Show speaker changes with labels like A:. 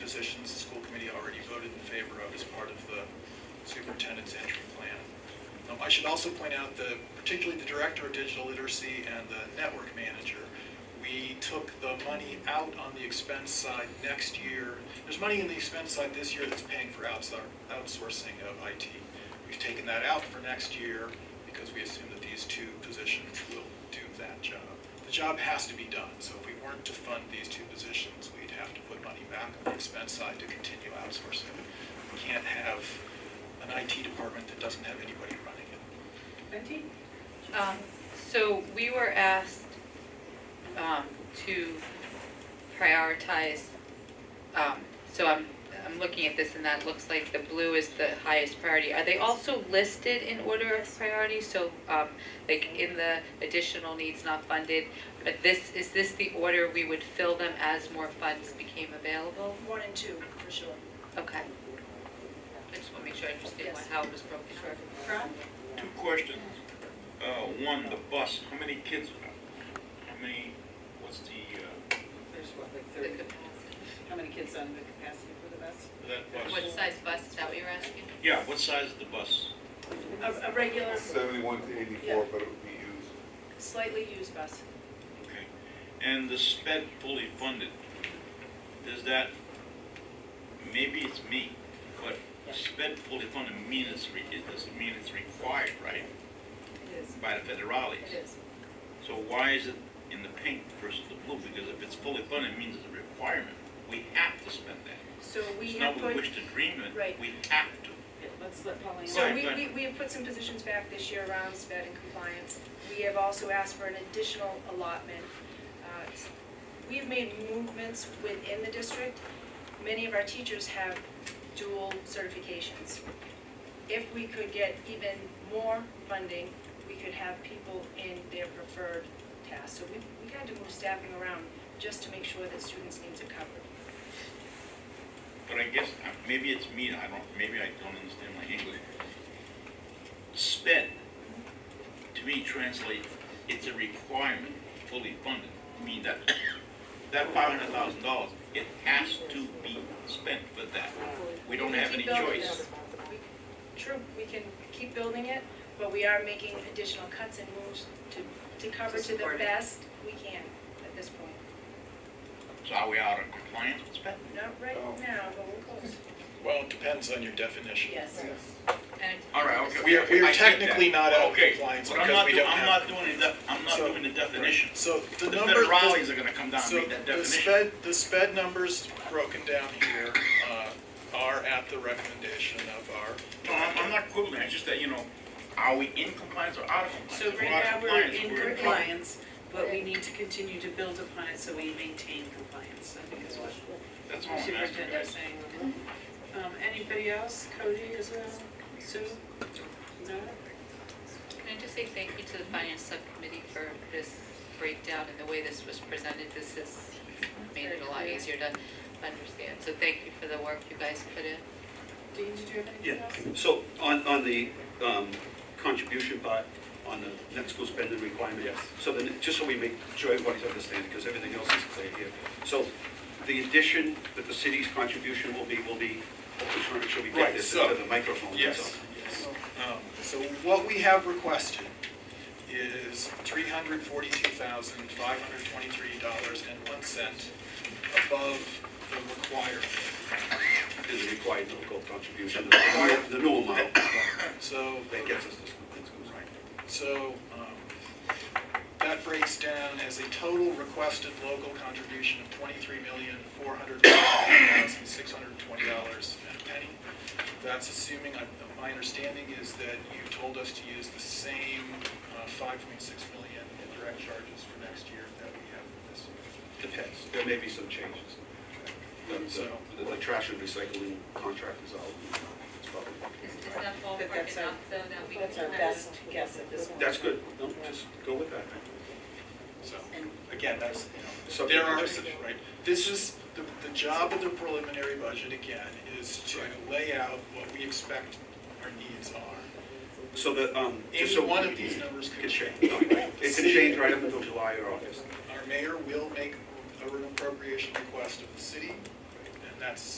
A: positions the school committee already voted in favor of as part of the superintendent's entry plan. Um, I should also point out that particularly the director of digital literacy and the network manager, we took the money out on the expense side next year. There's money in the expense side this year that's paying for outsour- outsourcing of IT. We've taken that out for next year because we assume that these two positions will do that job. The job has to be done, so if we weren't to fund these two positions, we'd have to put money back on the expense side to continue outsourcing. We can't have an IT department that doesn't have anybody running it.
B: Benty?
C: Um, So we were asked um, to prioritize, um, so I'm, I'm looking at this and that looks like the blue is the highest priority. Are they also listed in order of priority? So um, like in the additional needs not funded, but this, is this the order we would fill them as more funds became available?
B: One and two, for sure.
C: Okay. I just want to make sure I understand what- how it was broken.
B: Ron?
D: Two questions. Uh, one, the bus, how many kids, how many, what's the, uh,
E: There's what, like
C: The
E: thirty,
C: capacity.
E: how many kids on the capacity for the bus?
D: that
C: What
D: bus?
C: size bus, is that what you were asking?
D: Yeah, what size is the bus?
B: A, a regular,
F: Seventy-one to eighty-four, but it would be used.
B: slightly used bus.
D: Okay. And the sped fully funded, does that, maybe it's me, but sped fully funded mean it's, re- it doesn't mean it's required, right?
B: It is.
D: By the federales.
B: It is.
D: So why is it in the pink versus the blue? Because if it's fully funded, it means it's a requirement. We have to spend that.
B: So we
D: It's
B: have
D: not
B: put.
D: we wish to dream
B: Right.
D: it, we have to.
E: Yeah, Let's let Pauline.
B: So
D: Right,
B: we,
D: right.
B: we, we have put some positions back this year around sped and compliance. We have also asked for an additional allotment. Uh, We've made movements within the district. Many of our teachers have dual certifications. If we could get even more funding, we could have people in their preferred tasks. So we, we had to move staffing around just to make sure that students' needs are covered.
D: But I guess, uh, maybe it's me, I don't, maybe I don't understand my English. Sped, to me, translates, it's a requirement, fully funded. I mean, that, that five hundred thousand dollars, it has to be spent for that. We don't have any
B: Keep building
D: choice.
B: it. We- True, we can keep building it, but we are making additional cuts and moves to, to cover
C: To
B: to the
C: support it.
B: best we can at this point.
D: So are we out of compliance with sped?
B: Not right
F: Oh.
B: now, but we're close.
A: Well, it depends on your definition.
B: Yes.
C: And-
D: All right, okay.
A: We are, we
D: I
A: are
D: get that.
A: technically not out of
D: Okay,
A: compliance
D: but I'm
A: because
D: not
A: we
D: doing-
A: don't have.
D: I'm not doing the, I'm not
A: So-
D: doing the definition.
A: So the
D: The
A: number.
D: federales are gonna come down and
A: So
D: make that
A: the
D: definition.
A: sped, the sped numbers broken down here uh, are at the recommendation of our.
D: No, I'm, I'm not quibbling, it's just that, you know, are we in compliance or out of compliance?
E: So
D: If
E: right
D: out of
E: now, we're
D: compliance,
E: in
D: in
E: compliance, but we need to continue to build upon it so we maintain compliance, I think is what
D: trouble. That's all
E: the
D: I'm asking,
E: superintendent's
D: guys.
E: saying. Um, anybody else? Cody as well? Sue? No?
C: Can I just say thank you to the finance subcommittee for this breakdown and the way this was presented? This has made it a lot easier to understand. So thank you for the work you guys put in.
E: Dean, did you have anything
G: Yeah,
E: else?
G: so on, on the um, contribution part, on the net school spending requirement.
A: Yes.
G: So then, just so we make sure everybody's understanding, because everything else is clear here. So the addition that the city's contribution will be, will be, hopefully trying to make sure we
A: Right,
G: get this
A: so-
G: into the microphone. that's
D: Yes,
G: all.
D: yes.
A: Um, So what we have requested is three hundred forty-two thousand, five hundred twenty-three dollars and one cent above the requirement.
G: Is the required local contribution, the required- the new amount
A: So
G: that gets us to school, net schools.
A: So um, that breaks down as a total requested local contribution of twenty-three million, four hundred thousand, six hundred and twenty dollars and a penny. That's assuming, I- my understanding is that you told us to use the same uh, five point six million in direct charges for next year that we have for this year.
G: Depends, there may be some changes. The- The the trash and recycling contract is out, it's probably.
C: Is is that all
E: But
C: broken
E: that's our-
C: up though, that we can
E: That's our
C: kind of-
E: best guess at this point.
G: That's good, no, just go with that.
A: So,
E: And
A: again, that's, you know,
G: Subject
A: There are,
G: to change.
A: right, this is, the, the job of the preliminary budget, again, is to lay out what we expect our needs are.
G: So the, um, just so.
A: Any one of these numbers
G: It
A: could
G: Can
A: change.
G: change, it can change right up until July or August.
A: Our mayor will make an appropriation request of the city, and that's